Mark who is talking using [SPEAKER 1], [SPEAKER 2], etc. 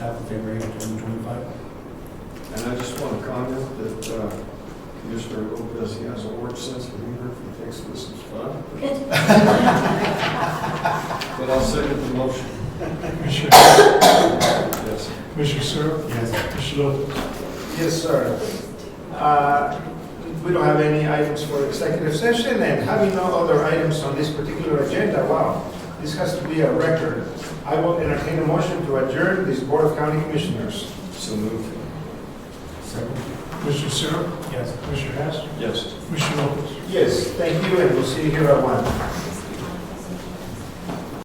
[SPEAKER 1] half of February 2025.
[SPEAKER 2] And I just want to comment that uh, Commissioner Lopez, he has a orange sense of humor, if he thinks this is fun. But I'll second the motion.
[SPEAKER 3] Commissioner,
[SPEAKER 2] Yes.
[SPEAKER 3] Commissioner Searle,
[SPEAKER 1] Yes.
[SPEAKER 3] Commissioner Lopez.
[SPEAKER 4] Yes, sir. Uh, We don't have any items for executive session, and having no other items on this particular agenda, wow, this has to be a record. I will entertain a motion to adjourn this Board of County Commissioners.
[SPEAKER 2] So moved.
[SPEAKER 1] Second.
[SPEAKER 3] Commissioner Searle,
[SPEAKER 1] Yes.
[SPEAKER 3] Commissioner Hess,
[SPEAKER 2] Yes.
[SPEAKER 3] Commissioner Lopez.
[SPEAKER 4] Yes, thank you, and we'll see you here at one.